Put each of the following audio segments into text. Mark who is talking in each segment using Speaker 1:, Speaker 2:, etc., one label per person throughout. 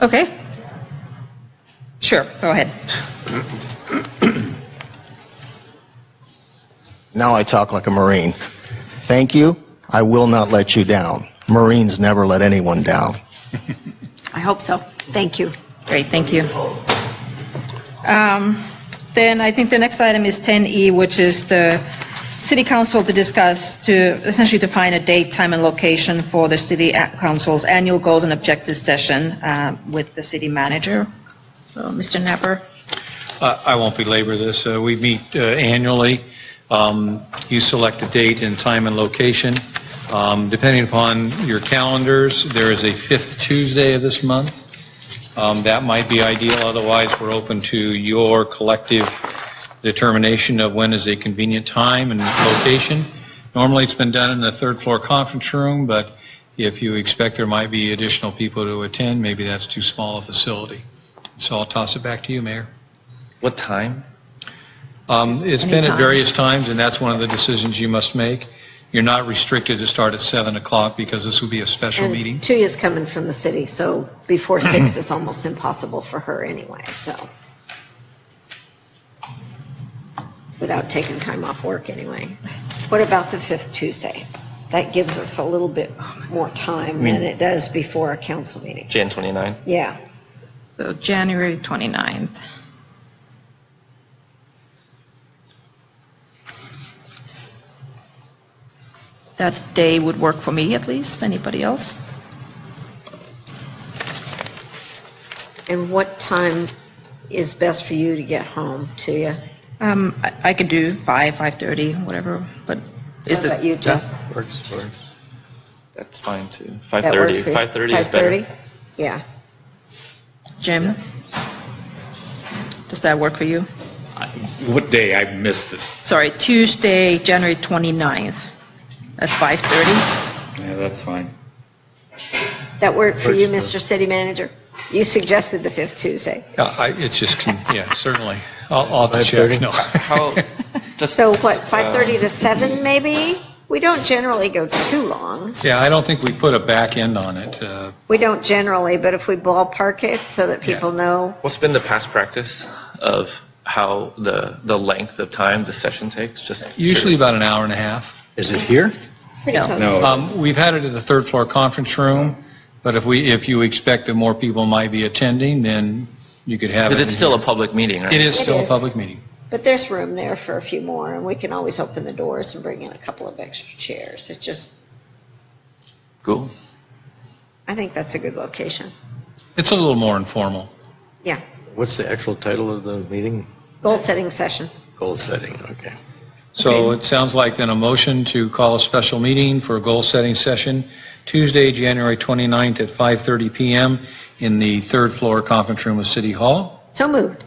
Speaker 1: Okay. Sure, go ahead.
Speaker 2: Now I talk like a Marine. Thank you. I will not let you down. Marines never let anyone down.
Speaker 3: I hope so. Thank you.
Speaker 1: Great, thank you. Um, Then I think the next item is 10E, which is the city council to discuss, to essentially define a date, time, and location for the city a- council's annual goals and objectives session uh, with the city manager. So, Mr. Napper?
Speaker 4: Uh, I won't belabor this. Uh, We meet uh, annually. Um, You select a date and time and location. Um, Depending upon your calendars, there is a fifth Tuesday of this month. Um, That might be ideal, otherwise we're open to your collective determination of when is a convenient time and location. Normally, it's been done in the third floor conference room, but if you expect there might be additional people to attend, maybe that's too small a facility. So I'll toss it back to you, Mayor.
Speaker 5: What time?
Speaker 4: Um, It's been at
Speaker 3: Anytime.
Speaker 4: various times, and that's one of the decisions you must make. You're not restricted to start at 7 o'clock because this will be a special meeting.
Speaker 3: And Tuya's coming from the city, so before six is almost impossible for her anyway, so. Without taking time off work anyway. What about the fifth Tuesday? That gives us a little bit more time than it does before a council meeting.
Speaker 5: Jan 29.
Speaker 3: Yeah,
Speaker 1: So January 29th. That day would work for me at least, anybody else?
Speaker 3: and what time is best for you to get home, Tuya?
Speaker 1: Um, I I could do 5, 5:30, whatever, but is
Speaker 3: What about
Speaker 1: the,
Speaker 3: you, Jeff?
Speaker 5: Works, works. That's fine too.
Speaker 3: That
Speaker 5: 5:30.
Speaker 3: works for you?
Speaker 5: 5:30 is better.
Speaker 3: 5:30? Yeah.
Speaker 1: Jim? Does that work for you?
Speaker 6: What day? I missed it.
Speaker 1: Sorry, Tuesday, January 29th at 5:30?
Speaker 6: Yeah, that's fine.
Speaker 3: That work for you, Mr. City Manager? You suggested the fifth Tuesday.
Speaker 4: Yeah, Uh, I- It's just, con- yeah, certainly. I'll I'll have to check. No.
Speaker 5: How? Just
Speaker 3: So what, 5:30
Speaker 5: uh,
Speaker 3: to 7 maybe? We don't generally go too long.
Speaker 4: Yeah, I don't think we put a back end on it. Uh,
Speaker 3: We don't generally, but if we ballpark it so that people know,
Speaker 5: What's been the past practice of how the the length of time the session takes? Just
Speaker 4: Usually
Speaker 5: curious.
Speaker 4: about an hour and a half.
Speaker 7: Is it here?
Speaker 3: pretty
Speaker 1: No.
Speaker 3: close.
Speaker 6: No,
Speaker 4: Um, We've had it at the third floor conference room, but if we, if you expect that more people might be attending, then you could have it.
Speaker 5: Because it's
Speaker 4: in
Speaker 5: still a
Speaker 4: here.
Speaker 5: public meeting, right?
Speaker 4: It is
Speaker 3: It
Speaker 4: still a
Speaker 3: is.
Speaker 4: public meeting.
Speaker 3: But there's room there for a few more, and we can always open the doors and bring in a couple of extra chairs. It's just,
Speaker 5: Cool.
Speaker 3: I think that's a good location.
Speaker 4: It's a little more informal.
Speaker 3: Yeah,
Speaker 7: What's the actual title of the meeting?
Speaker 3: goal-setting session.
Speaker 7: Goal setting, okay.
Speaker 4: So it sounds like then a motion to call a special meeting for a goal-setting session Tuesday, January 29th at 5:30 PM in the third floor conference room of City Hall.
Speaker 3: So moved.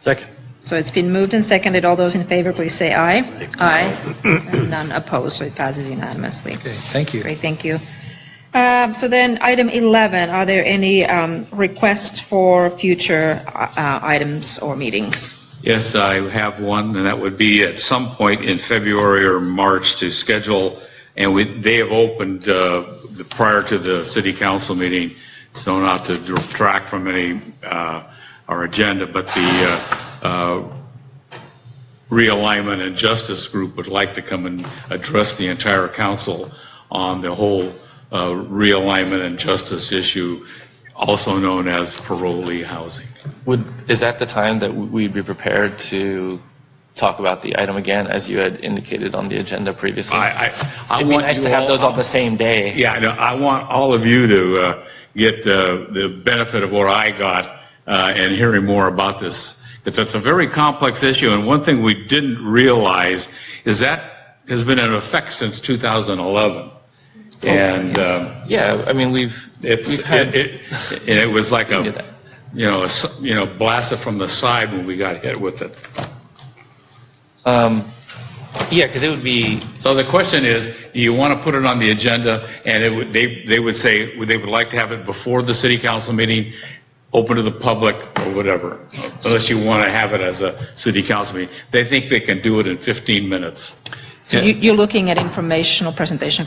Speaker 7: Second.
Speaker 1: So it's been moved and seconded. All those in favor, please say aye. Aye. And None opposed, so it passes unanimously.
Speaker 4: Okay, thank you.
Speaker 1: Great, thank you. Um, So then, item 11, are there any um, requests for future uh, uh, items or meetings?
Speaker 6: Yes, I have one, and that would be at some point in February or March to schedule, and we, they have opened, uh, the- prior to the city council meeting, so not to detract from any, uh, our agenda, but the, uh, uh, realignment and justice group would like to come and address the entire council on the whole uh, realignment and justice issue, also known as parolee housing.
Speaker 5: Would is that the time that w- we'd be prepared to talk about the item again, as you had indicated on the agenda previously?
Speaker 6: I, I, I
Speaker 5: It'd be
Speaker 6: want
Speaker 5: nice
Speaker 6: you
Speaker 5: to have
Speaker 6: all-
Speaker 5: those on the same day.
Speaker 6: Yeah, I know. I want all of you to uh, get uh, the benefit of what I got uh, and hearing more about this. Because that's a very complex issue, and one thing we didn't realize is that has been in effect since 2011.
Speaker 5: Oh,
Speaker 6: And um,
Speaker 5: Yeah, I mean, we've.
Speaker 6: it's,
Speaker 5: we've had-
Speaker 6: it, it, and it was like
Speaker 5: did that.
Speaker 6: a, you know, a s you know, blasted from the side when we got hit with it.
Speaker 5: Um, yeah, because it would be,
Speaker 6: So the question is, do you want to put it on the agenda? And it would, they, they would say, would- they would like to have it before the city council meeting, open to the public or whatever, unless you want to have it as a city council meeting. They think they can do it in 15 minutes.
Speaker 1: So you- you're looking at informational presentation